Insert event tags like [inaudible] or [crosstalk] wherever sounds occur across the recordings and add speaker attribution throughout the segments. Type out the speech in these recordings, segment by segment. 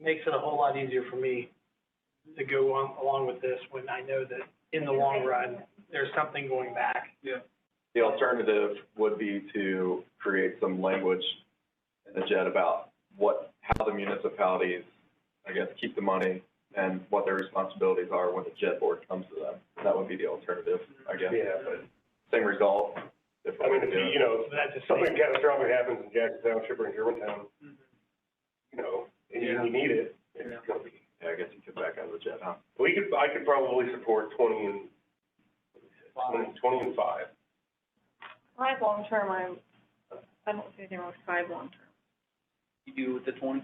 Speaker 1: makes it a whole lot easier for me to go on, along with this when I know that in the long run, there's something going back.
Speaker 2: The alternative would be to create some language in the JET about what, how the municipalities, I guess, keep the money and what their responsibilities are when the JET board comes to them. That would be the alternative, I guess.
Speaker 3: Yeah, but,
Speaker 2: Same result. if
Speaker 3: I
Speaker 2: we
Speaker 3: mean,
Speaker 2: do
Speaker 3: if, you-
Speaker 2: it.
Speaker 3: you know,
Speaker 1: So that's just.
Speaker 3: if something catastrophic happens in Jackson Township or in Germantown, you know, and you
Speaker 1: Yeah.
Speaker 3: you need it,
Speaker 1: Yeah.
Speaker 3: it's gonna be.
Speaker 2: Yeah, I guess you could back out of the JET, huh?
Speaker 3: We could, I could probably support twenty and, twenty, twenty and five.
Speaker 4: Five long-term, I'm, I don't see anything wrong with five long-term.
Speaker 5: You do with the twenty,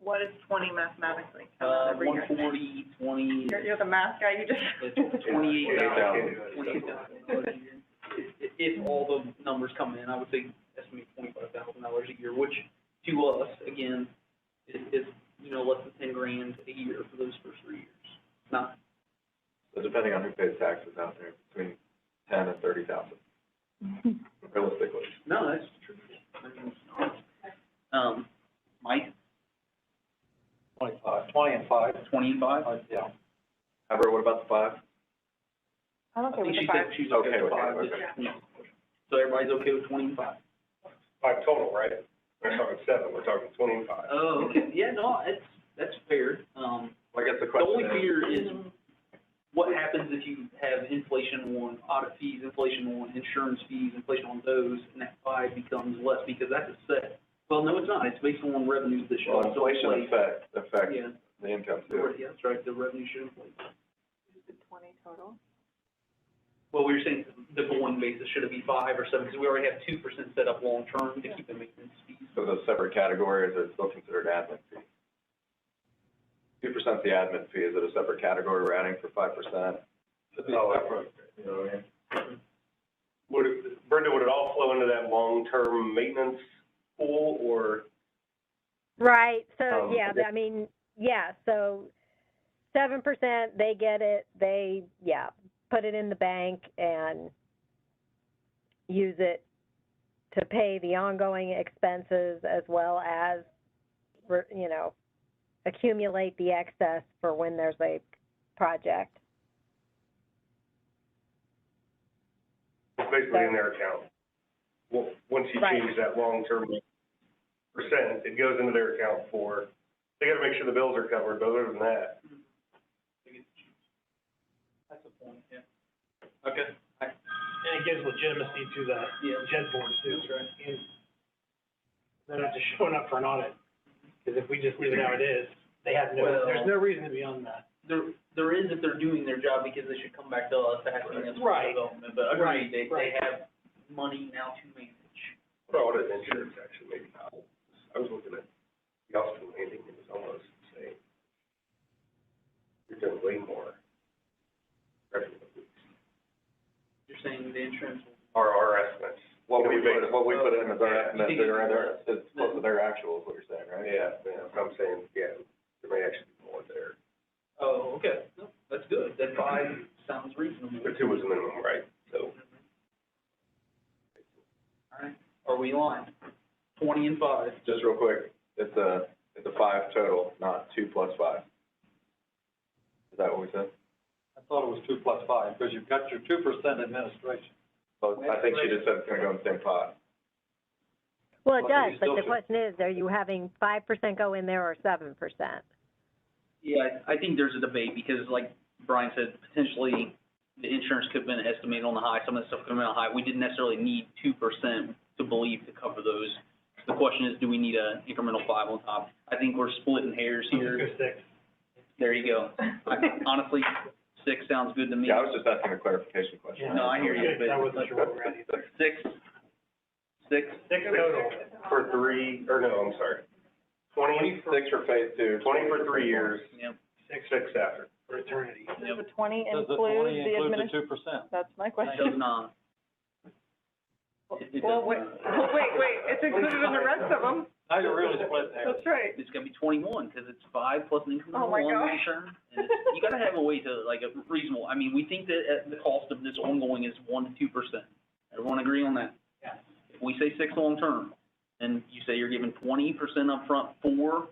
Speaker 4: What is twenty mathematically? How does
Speaker 5: uh,
Speaker 4: that bring
Speaker 5: one
Speaker 4: your-
Speaker 5: forty, twenty,
Speaker 4: You're, you're the math guy, you
Speaker 5: it's
Speaker 4: just.
Speaker 5: twenty-eight thousand,
Speaker 3: Yeah.
Speaker 5: twenty-eight thousand dollars a year. If, if all the numbers come in, I would say estimate twenty-five thousand dollars a year, which to us, again, is, is, you know, less than ten grand a year for those first three years. It's Not,
Speaker 2: So depending on who pays taxes out there, between ten and thirty thousand,
Speaker 4: [laughs]
Speaker 2: realistically.
Speaker 5: no, that's true. I mean, it's not. Um, Mike,
Speaker 6: Twenty-five, twenty and five,
Speaker 5: twenty and five?
Speaker 6: uh, yeah.
Speaker 2: However, what about the five?
Speaker 4: I'm
Speaker 5: I think she said
Speaker 4: [laughs]
Speaker 5: she's
Speaker 2: Okay
Speaker 5: okay with
Speaker 2: with it,
Speaker 5: five.
Speaker 2: okay.
Speaker 5: Yeah. So everybody's okay with twenty and five?
Speaker 3: Five total, right? We're not talking seven, we're talking twenty and
Speaker 1: Uh,
Speaker 3: five.
Speaker 5: Oh, okay, [laughs] yeah, no, it's, that's fair, um,
Speaker 2: Well, I guess the
Speaker 5: the only
Speaker 2: question is,
Speaker 5: fear is what happens if you have inflation on audit fees, inflation on insurance fees, inflation on those, and that five becomes less, because that's a set. Well, no, it's not, it's based on revenues this year.
Speaker 2: well, inflation affects, affects
Speaker 5: Yeah,
Speaker 2: the income too.
Speaker 5: yeah, that's right, the revenue should inflate.
Speaker 4: Twenty total.
Speaker 5: Well, we were saying the going basis, should it be five or seven, because we already have two percent set up long-term to keep the maintenance fees.
Speaker 2: So those separate categories are still considered admin fee. Two percent the admin fee, is it a separate category we're adding for five percent?
Speaker 3: No, that's right.
Speaker 2: You know what I mean?
Speaker 3: Would, it- Brenda, would it all flow into that long-term maintenance pool, or?
Speaker 7: Right, so,
Speaker 3: Um,
Speaker 7: yeah, I mean, yeah, so seven percent, they get it, they, yeah, put it in the bank and use it to pay the ongoing expenses as well as, re- you know, accumulate the excess for when there's a project.
Speaker 3: It's basically in their account. Well, once you
Speaker 7: Right.
Speaker 3: change that long-term percent, it goes into their account for, they gotta make sure the bills are covered, but other than that,
Speaker 5: That's a point, yeah. Okay, I,
Speaker 1: And it gives legitimacy to the
Speaker 5: yeah,
Speaker 1: JED board too.
Speaker 5: that's right.
Speaker 1: And They're not just showing up for an audit, because if we just leave it how it is, they have no,
Speaker 5: Well-
Speaker 1: there's no reason to be on that.
Speaker 5: There, there is if they're doing their job because they should come back to us asking us for
Speaker 1: Right.
Speaker 5: development, but
Speaker 1: Right,
Speaker 5: agreed, they, they
Speaker 1: right.
Speaker 5: have money now to manage.
Speaker 3: what audit and insurance actually maybe not. I was looking at the Austin landing, it was almost the same. You're doing way more. revenue.
Speaker 5: You're saying the insurance will.
Speaker 3: Our, our estimates.
Speaker 2: What we
Speaker 3: You know,
Speaker 2: put, what we put in as our
Speaker 3: Yeah.
Speaker 2: estimate,
Speaker 5: You think
Speaker 2: they're,
Speaker 5: it's-
Speaker 2: they're, it's close to their actual is what you're saying, right?
Speaker 3: Yeah, yeah, so I'm saying, yeah, there may actually be more there.
Speaker 5: Oh, okay, no, that's good, that five sounds reasonable.
Speaker 3: But two was the minimum, right? So,
Speaker 5: Alright, are we on? Twenty and five,
Speaker 2: Just real quick, it's a, it's a five total, not two plus five. Is that what we said?
Speaker 6: I thought it was two plus five, because you've got your two percent administration.
Speaker 2: Well, I think she just said it's gonna go in the same pot.
Speaker 7: Well,
Speaker 6: Well,
Speaker 7: it
Speaker 6: you
Speaker 7: does, but
Speaker 6: still
Speaker 7: the
Speaker 6: should-
Speaker 7: question is, are you having five percent go in there or seven percent?
Speaker 5: yeah, I I think there's a debate, because like Brian said, potentially the insurance could have been estimated on the high, some of the stuff could have been on the high, we didn't necessarily need two percent to believe to cover those. The question is, do we need an incremental five on top? I think we're splitting hairs here.
Speaker 1: Go six.
Speaker 5: There you go. I- Honestly, six sounds good to me.
Speaker 2: Yeah, I was just asking a clarification question.
Speaker 1: Yeah.
Speaker 5: No, I hear you, but-
Speaker 1: I wasn't sure what we're at either.
Speaker 5: Six, six,
Speaker 1: Six total.
Speaker 3: for three, or no, I'm sorry, twenty,
Speaker 2: Six for phase two.
Speaker 3: twenty for three years,
Speaker 5: yeah,
Speaker 3: six, six after.
Speaker 1: for eternity.
Speaker 4: Does the twenty
Speaker 6: Does the
Speaker 4: include
Speaker 6: twenty include
Speaker 4: the
Speaker 6: the two
Speaker 4: administration?
Speaker 6: percent?
Speaker 4: That's my
Speaker 5: it
Speaker 4: question.
Speaker 5: does not. It- it does
Speaker 4: Well, wait,
Speaker 5: not.
Speaker 4: wait, wait, it's included in the rest of
Speaker 5: [laughs]
Speaker 4: them,
Speaker 6: Now you're really splitting hairs.
Speaker 4: that's right.
Speaker 5: It's gonna be twenty-one, because it's five plus an
Speaker 4: Oh
Speaker 5: incremental
Speaker 4: my
Speaker 5: one
Speaker 4: gosh.
Speaker 5: return. and it's- You gotta have a way to, like, a reasonable, I mean, we think that uh, the cost of this ongoing is one to two percent. Everyone agree on that? If we say six long-term, and you say you're giving twenty percent upfront for